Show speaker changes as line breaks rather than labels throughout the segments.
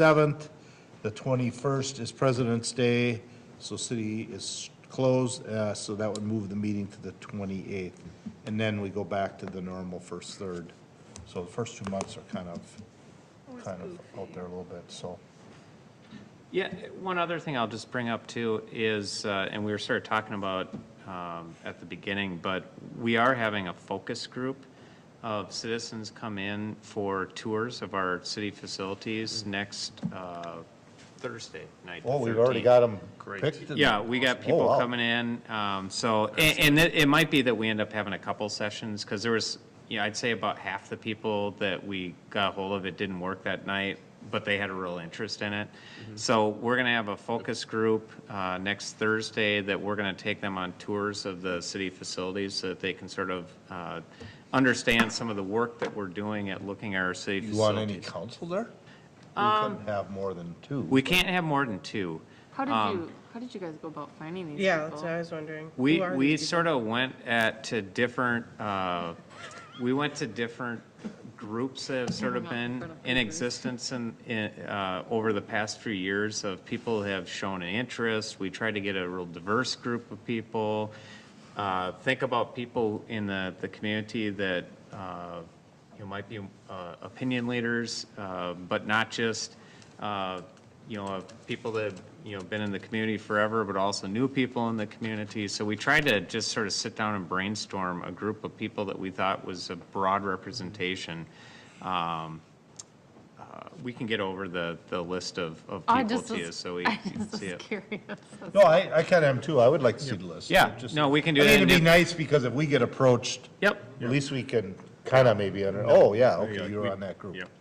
27th. The 21st is President's Day, so city is closed, uh, so that would move the meeting to the 28th. And then we go back to the normal first third. So the first two months are kind of, kind of out there a little bit, so.
Yeah, one other thing I'll just bring up too is, uh, and we were sort of talking about um, at the beginning, but we are having a focus group of citizens come in for tours of our city facilities next uh, Thursday night. the
Oh, we've already
13th.
got them picked? and- Oh,
Yeah, we got people
wow.
coming in, um, so, and, and it, it might be that we end up having a couple sessions, because there was, you know, I'd say about half the people that we got hold of, it didn't work that night, but they had a real interest in it.
Mm-hmm.
So we're gonna have a focus group, uh, next Thursday, that we're gonna take them on tours of the city facilities, so that they can sort of, uh, understand some of the work that we're doing at looking at our city
You want any
facilities.
council there? We couldn't have more than two.
We can't have more than two.
How
Um,
did you, how did you guys go about finding these
Yeah, that's
people?
what I was wondering.
We,
Who are
we
these
sort of went at, to different, uh, we went to different groups that have sort of been in existence in, in, uh, over the past few years of people who have shown an interest. We tried to get a real diverse group of people. Uh, Think about people in the, the community that, uh, you know, might be uh, opinion leaders, uh, but not just, uh, you know, of people that, have, you know, been in the community forever, but also new people in the community. So we tried to just sort of sit down and brainstorm a group of people that we thought was a broad representation. Um, uh, We can get over the, the list of, of
Oh, I
people
just
to you,
was-
so we
I
you can
just
see
was
it.
curious.
No, I, I kind of am too. I would like to see the list.
Yeah,
Just-
no, we can do
I
that
think it'd
and
be
if-
nice, because if we get approached,
Yep.
at least we can kind of maybe, under- oh, yeah, okay,
Yeah,
you were
we-
on that group.
Yeah,
people?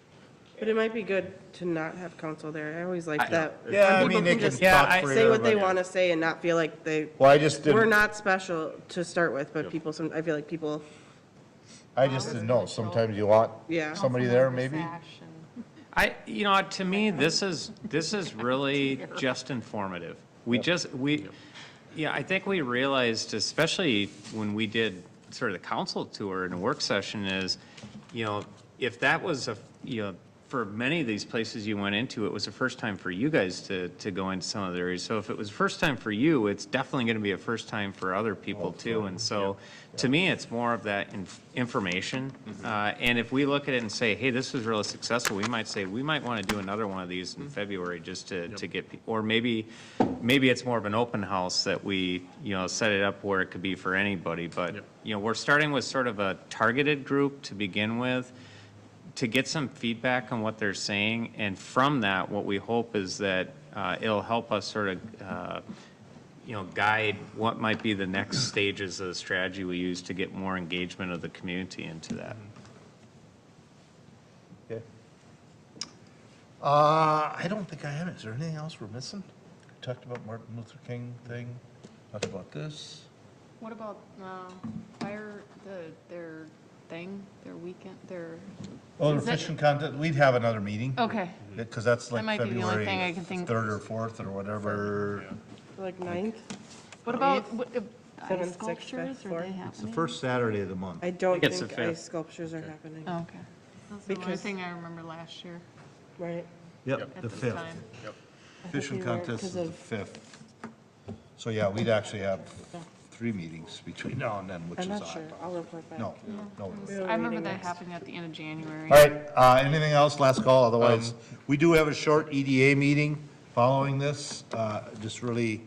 But it might be good to not have counsel there. I always like
I-
that.
Yeah, I
People
mean, they
can
can
just
Yeah,
talk
I-
for
Say what they
everybody.
want to say and not feel like they,
Well, I just
we're
didn't,
not special to start with, but people, some, I feel like people,
I just didn't know. Sometimes you want
Yeah.
somebody there, maybe?
Sash and-
I, you know, to me, this is, this is really just informative. We just, we, yeah, I think we realized, especially when we did sort of the council tour and work session is, you know, if that was a, you know, for many of these places you went into, it was the first time for you guys to, to go into some of the areas. So if it was first time for you, it's definitely going to be a first time Oh, for other people too. And so, to me, it's more of that inf- information. Uh, And if we look at it and say, hey, this was really successful, we might say, we might want to do another one of these in February just to, to get, pe- or maybe, maybe it's more of an open house that we, you know, set it up where it could be for anybody. But, you know, we're starting with sort of a targeted group to begin with to get some feedback on what they're saying, and from that, what we hope is that uh, it'll help us sort of, uh, you know, guide what might be the next stages of the strategy we use to get more engagement of the community into that.
Okay. Uh, I don't think I have it. Is there anything else we're missing? Talked about Martin Luther King thing, talked about this.
What about, uh, fire, the, their thing, their weekend, their,
Oh, the
Is that-
fishing contest, we'd have another meeting.
okay.
Because that's like
might be the only
February
thing I can think-
3rd or 4th or whatever.
like ninth.
What about,
Eighth,
what, uh, ice
seventh, sixth,
sculptures,
fifth,
are they
fourth.
happening?
It's the first Saturday of the month.
I don't
It's
think
the fifth.
ice sculptures are happening,
Oh, Okay. That's the only
Because-
thing I remember last year
right?
Yep,
at
the
this
5th.
time.
Fishing
they were
contest is
'cause
the
of-
5th. So, yeah, we'd actually have three meetings between now and then, which
I'm
is
not sure.
odd.
I'll report back.
No, no.
We have a
I remember
meeting
that
next.
happening at the end of January.
All right, uh, anything else, last call, otherwise,
Um,
we do have a short EDA meeting following this, uh, just really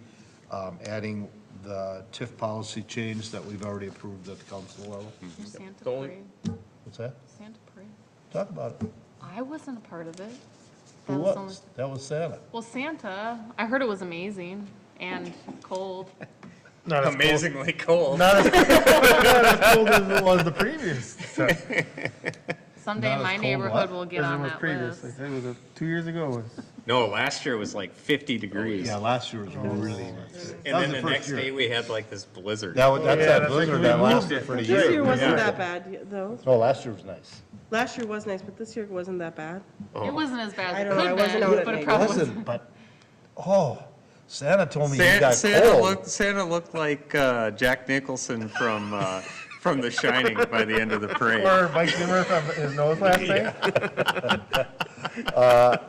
um, adding the TIF policy change that we've already approved at the council level.
Santa
The only-
parade,
What's that?
Santa parade.
Talk about it.
I wasn't a part of it.
Who
That was only-
was? That was Santa.
Well, Santa, I heard it was amazing and cold.
amazingly cold.
Not as cold as it was the previous.
Someday
Not as
my
cold,
neighborhood
what?
will get on that list.
It was two years ago.
No, last year was like 50 degrees.
Yeah, last year was really nice.
Oh. And
was
then
the
the
first
next
year.
day, we had like this blizzard.
That was, that's
yeah,
that
that's like
blizzard
we
that
moved
lasted
it.
for a year.
This year wasn't
Yeah.
that bad, though.
No, last year was nice.
Last year was nice, but this year wasn't that bad.
It wasn't as bad
I
as it
don't know,
could
I
have
wasn't
been,
out at
but it
night.
probably was.
Wasn't, but, oh, Santa told me he
Santa,
got
Santa
cold.
looked, Santa looked like uh, Jack Nicholson from, uh, from The Shining by the end of the parade.
Or Mike Zimmer from his nose last night.